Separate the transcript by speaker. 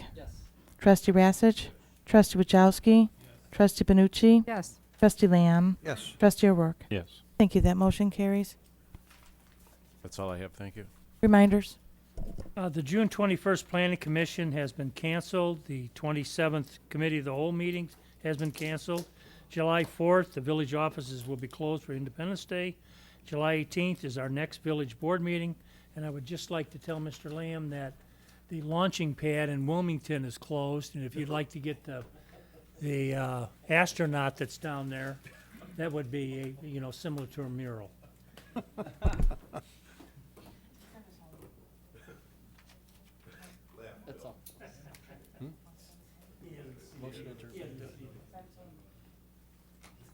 Speaker 1: Trustee Rassich, Trustee Wajowski, Trustee Benucci,
Speaker 2: Yes.
Speaker 1: Trustee Lamb,
Speaker 3: Yes.
Speaker 1: Trustee O'Rourke.
Speaker 4: Yes.
Speaker 1: Thank you. That motion carries.
Speaker 4: That's all I have. Thank you.
Speaker 1: Reminders.
Speaker 5: Uh, The June 21st Planning Commission has been canceled. The 27th Committee of the Whole meeting has been canceled. July 4th, the village offices will be closed for Independence Day. July 18th is our next village board meeting. And I would just like to tell Mr. Lamb that the launching pad in Wilmington is closed. And if you'd like to get the, the uh, astronaut that's down there, that would be, a you know, similar to a mural.